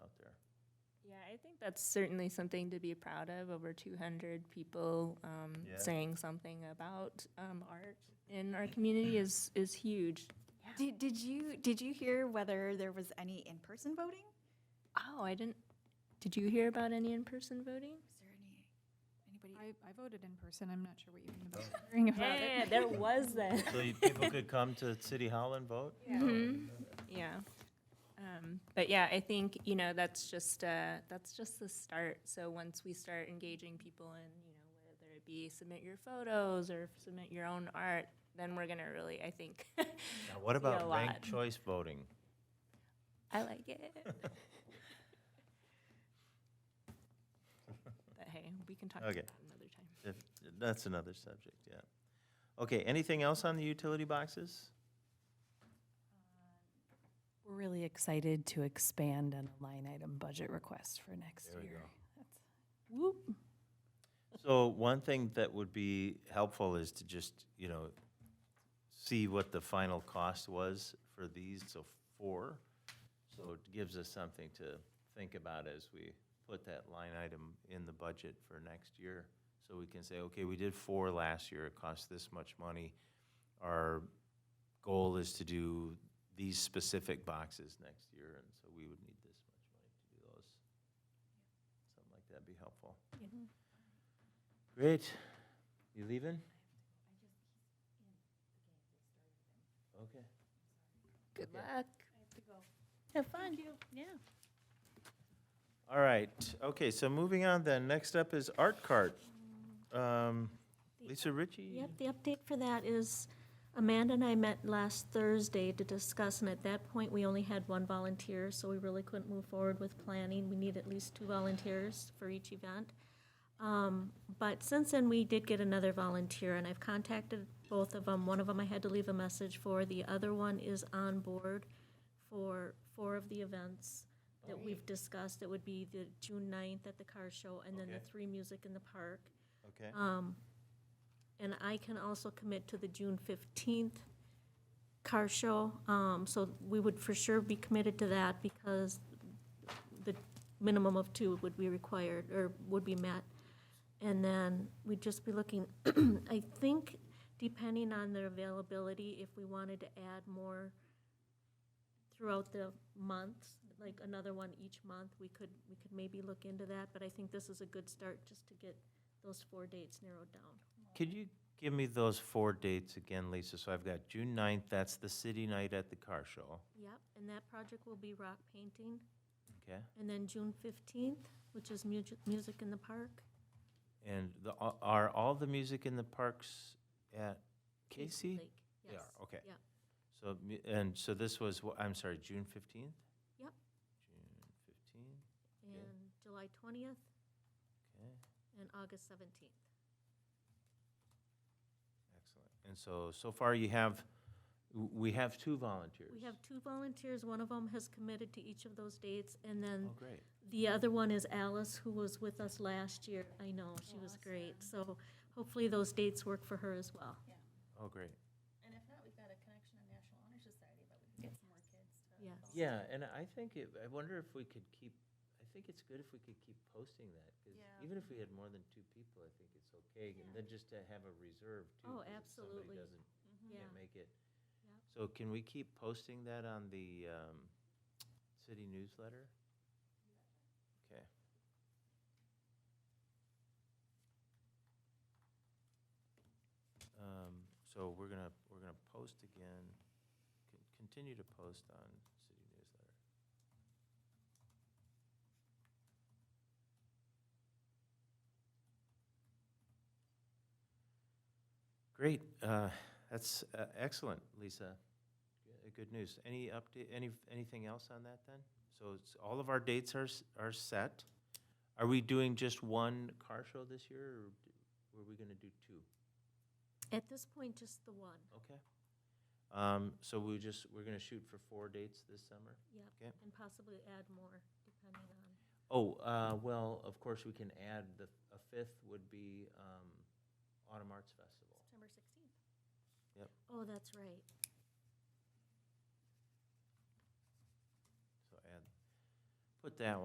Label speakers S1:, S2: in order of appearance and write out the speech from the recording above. S1: I think that's certainly something to be proud of. Over 200 people um,
S2: Yeah.
S1: saying something about um, art in our community is is huge.
S3: Did, did you did you hear whether there was any in person voting?
S1: Oh, I didn't. Did you hear about any in-person voting?
S3: Is there any anybody?
S4: I, I voted in person. I'm not sure what you mean about hearing about it.
S1: there was that.
S2: So you- people could come to City Hall and vote?
S1: Mhm. Yeah. Um, but yeah, I think, you know, that's just, uh, that's just the start. So once we start engaging people in, you know, whether it be submit your photos or submit your own art, then we're gonna really, I think,
S2: Now, what
S1: a
S2: about
S1: lot.
S2: ranked choice voting?
S1: I like it. But hey, we can talk about
S2: Okay.
S1: that another time.
S2: If, that's another subject, yeah. Okay, anything else on the utility boxes?
S5: We're really excited to expand on the line item budget request for next year. That's- Whoop.
S2: So one thing that would be helpful is to just, you know, see what the final cost was for these, so four. So it gives us something to think about as we put that line item in the budget for next year. So we can say, okay, we did four last year, it cost this much money. Our goal is to do these specific boxes next year, and so we would need this much money to do those. Something like that'd be helpful. Great. You leaving? Okay.
S1: Good luck.
S6: Have fun. Yeah.
S2: All right. Okay, so moving on then. Next up is Art Cart. Um, Lisa Ritchie?
S6: Yep, the update for that is Amanda and I met last Thursday to discuss, and at that point, we only had one volunteer, so we really couldn't move forward with planning. We need at least two volunteers for each event. Um, But since then, we did get another volunteer, and I've contacted both of them. One of them I had to leave a message for, the other one is on board for four of the events that we've discussed. It would be the June 9th at the car show, and then the
S2: Okay.
S6: three music in the park.
S2: Okay.
S6: Um, and I can also commit to the June fifteenth car show. Um, so we would for sure be committed to that because the minimum of two would be required or would be met. And then we'd just be looking, I think, depending on their availability, if we wanted to add more throughout the months, like another one each month, we could, we could maybe look into that. But I think this is a good start just to get those four dates narrowed down.
S2: Could you give me those four dates again, Lisa? So I've got June 9th, that's the city night at the car show.
S6: Yep, and that project will be rock painting.
S2: Okay?
S6: And then June fifteenth, which is music, music in the park.
S2: And the, are all the music in the parks at Casey?
S6: Lake,
S2: They
S6: yes.
S2: are, okay.
S6: Yeah.
S2: So, mu- and so this was, wh- I'm sorry, June 15th?
S6: Yep.
S2: June 15th. Yeah.
S6: And July twentieth
S2: Okay,
S6: and August seventeenth.
S2: excellent. And so, so far you have, w- we have two volunteers.
S6: We have two volunteers, one of them has committed to each of those dates, and then
S2: Oh, great.
S6: the other one is Alice, who was with us last year. I know, she was great, so hopefully those dates work for her as well.
S2: Oh, great.
S7: And if not, we've got a connection to National Honor Society, but we can get some more kids to.
S6: Yes.
S2: Yeah, and I think, it- I wonder if we could keep, I think it's good if we could keep posting that, because
S7: Yeah.
S2: even if we had more than two people, I think it's okay. And then just to have a reserve too.
S6: Oh,
S2: 'cause if
S6: absolutely.
S2: Somebody doesn't,
S6: Yeah,
S2: can't make it.
S6: Yep.
S2: So can we keep posting that on the, um, city newsletter? Okay. Um, So we're gonna, we're gonna post again, con- continue to post on city newsletter. Great, uh, that's uh, excellent, Lisa. G- Good news. Any update, any, anything else on that then? So it's, all of our dates are, s- are set. Are we doing just one car show this year, or d- were we gonna do two?
S6: at this point, just the one,
S2: Okay. Um, so we just, we're gonna shoot for four dates this summer? Okay.
S6: yep, and possibly add more, depending on.
S2: Oh, uh, well, of course, we can add the, a fifth would be, um, Autumn Arts Festival.
S7: September sixteenth.
S6: Oh, that's right.
S2: So add, put that